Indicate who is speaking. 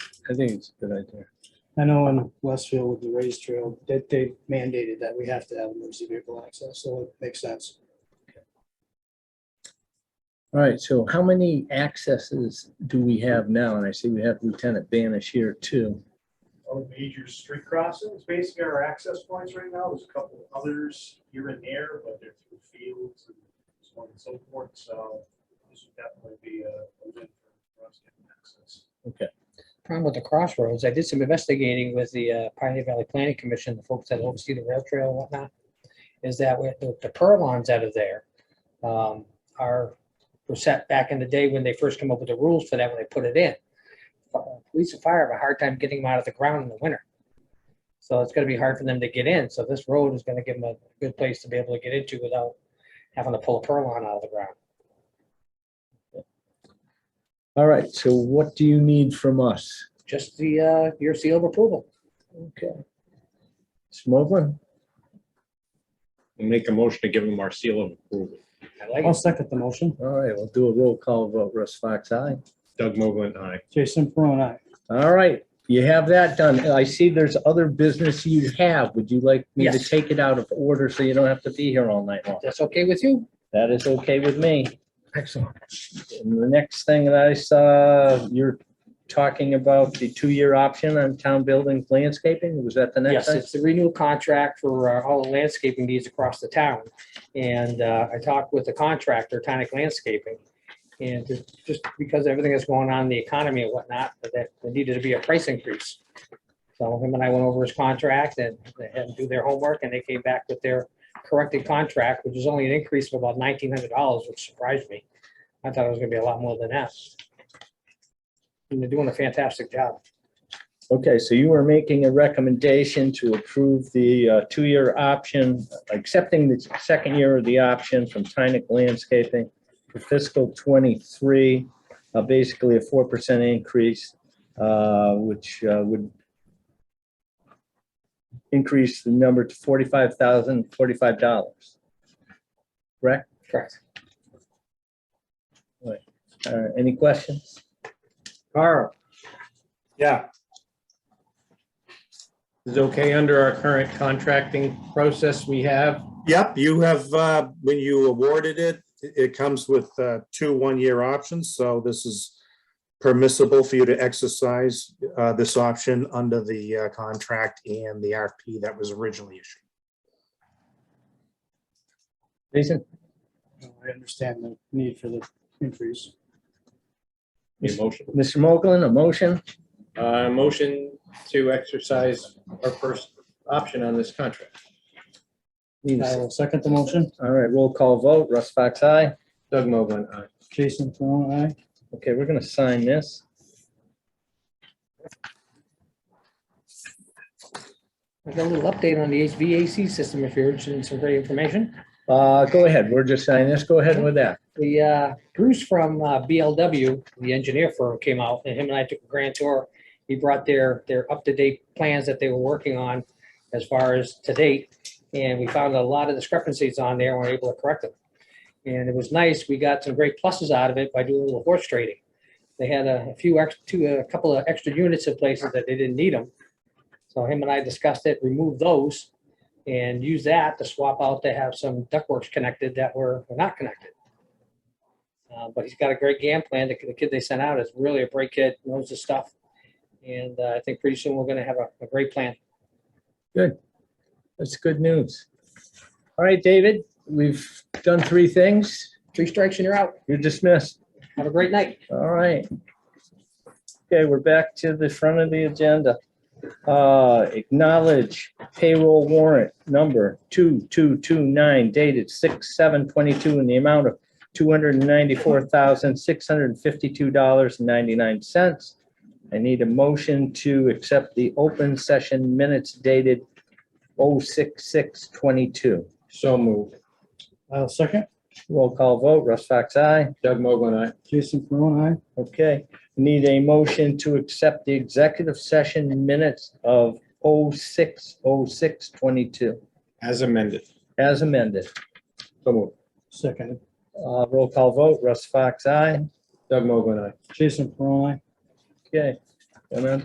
Speaker 1: I think it's a good idea.
Speaker 2: I know in Westfield with the race trail, that they mandated that we have to have emergency vehicle access, so it makes sense.
Speaker 1: All right, so how many accesses do we have now? And I see we have Lieutenant Banish here too.
Speaker 3: all the major street crossings, basically our access points right now, there's a couple others here and there, but they're through fields and so on and so forth, so this would definitely be a a win for us getting access.
Speaker 4: problem with the crossroads, I did some investigating with the uh, Pioneer Valley Planning Commission, the folks that oversee the rail trail and whatnot, is that with the the purlons out of there um, are, were set back in the day when they first came up with the rules for that, when they put it in. But, uh, Police and fire have a hard time getting them out of the ground in the winter. So it's gonna be hard for them to get in, so this road is gonna give them a good place to be able to get into without having to pull a purlon out of the ground.
Speaker 1: All right, so what do you need from us?
Speaker 4: Just the, uh, your seal of approval.
Speaker 1: Okay. Smoglin,
Speaker 5: Make a motion to give them our seal of approval.
Speaker 4: I like
Speaker 2: I'll
Speaker 4: it.
Speaker 2: second the motion.
Speaker 1: all right, we'll do a roll call vote. Russ Fox, aye.
Speaker 5: Doug Mogul, aye.
Speaker 2: Jason Peron, aye.
Speaker 1: All right, you have that done. I see there's other business you have. Would you like me to
Speaker 4: Yes.
Speaker 1: take it out of order so you don't have to be here all night long?
Speaker 4: That's okay with you?
Speaker 1: That is okay with me. Excellent. And the next thing that I saw, you're talking about the two-year option on town buildings landscaping. Was that the next
Speaker 4: Yes,
Speaker 1: thing?
Speaker 4: it's the renewal contract for uh, all the landscaping needs across the town. And uh, I talked with the contractor, Tonic Landscaping. And ju- just because everything is going on, in the economy and whatnot, that there needed to be a price increase. So him and I went over his contract and they had to do their homework and they came back with their corrected contract, which is only an increase of about nineteen hundred dollars, which surprised me. I thought it was gonna be a lot more than that. And they're doing a fantastic job.
Speaker 1: Okay, so you are making a recommendation to approve the uh, two-year option, accepting the second year of the option from Tynick Landscaping for fiscal twenty-three, uh, basically a four percent increase, uh, which uh, would increase the number to forty-five thousand, forty-five dollars. Correct?
Speaker 4: Correct.
Speaker 1: Uh, Any questions? Carl?
Speaker 5: Yeah. Is okay under our current contracting process we have?
Speaker 6: Yep, you have, uh, when you awarded it, it- it comes with uh, two one-year options, so this is permissible for you to exercise uh, this option under the uh, contract and the RFP that was originally issued.
Speaker 1: Jason?
Speaker 2: Oh, I understand the need for the increase.
Speaker 5: Need a motion?
Speaker 1: Mr. Mogul, a motion?
Speaker 5: Uh, motion to exercise our first option on this contract.
Speaker 1: Need a
Speaker 2: I
Speaker 1: second.
Speaker 2: will second the motion.
Speaker 1: All right, roll call vote. Russ Fox, aye.
Speaker 5: Doug Mogul, aye.
Speaker 2: Jason Peron, aye.
Speaker 1: Okay, we're gonna sign this.
Speaker 4: I got a little update on the HVAC system if you're interested in some great information.
Speaker 1: Uh, go ahead, we're just signing this, go ahead with that.
Speaker 4: The uh, Bruce from uh, BLW, the engineer firm, came out and him and I took a grand tour. He brought their, their up-to-date plans that they were working on as far as to date. And we found a lot of discrepancies on there and were able to correct them. And it was nice. We got some great pluses out of it by doing a little horse trading. They had a few, ex- two, a couple of extra units in places that they didn't need them. So him and I discussed it, removed those and used that to swap out to have some ductworks connected that were were not connected. Uh, but he's got a great game plan. The, the kid they sent out is really a great kid, knows his stuff. And uh, I think pretty soon we're going to have a, a great plan.
Speaker 1: That's good news. All right, David, we've done three things.
Speaker 4: Three strikes and you're out.
Speaker 1: You're dismissed.
Speaker 4: Have a great night.
Speaker 1: All right. Okay, we're back to the front of the agenda. Uh, acknowledge payroll warrant number two, two, two, nine dated six, seven, twenty-two in the amount of two hundred and ninety-four thousand, six hundred and fifty-two dollars and ninety-nine cents. I need a motion to accept the open session minutes dated oh, six, six, twenty-two.
Speaker 5: So moved.
Speaker 2: I'll second.
Speaker 1: Roll call vote, Russ Fox, aye.
Speaker 5: Doug Mogul, aye.
Speaker 2: Jason Peron, aye.
Speaker 1: Okay, need a motion to accept the executive session minutes of 06, 0622
Speaker 5: As amended.
Speaker 1: as amended.
Speaker 5: So moved.
Speaker 2: Second.
Speaker 1: Uh, Roll call vote, Russ Fox, aye.
Speaker 5: Doug Mogul, aye.
Speaker 2: Jason Peron, aye.
Speaker 1: Okay. And then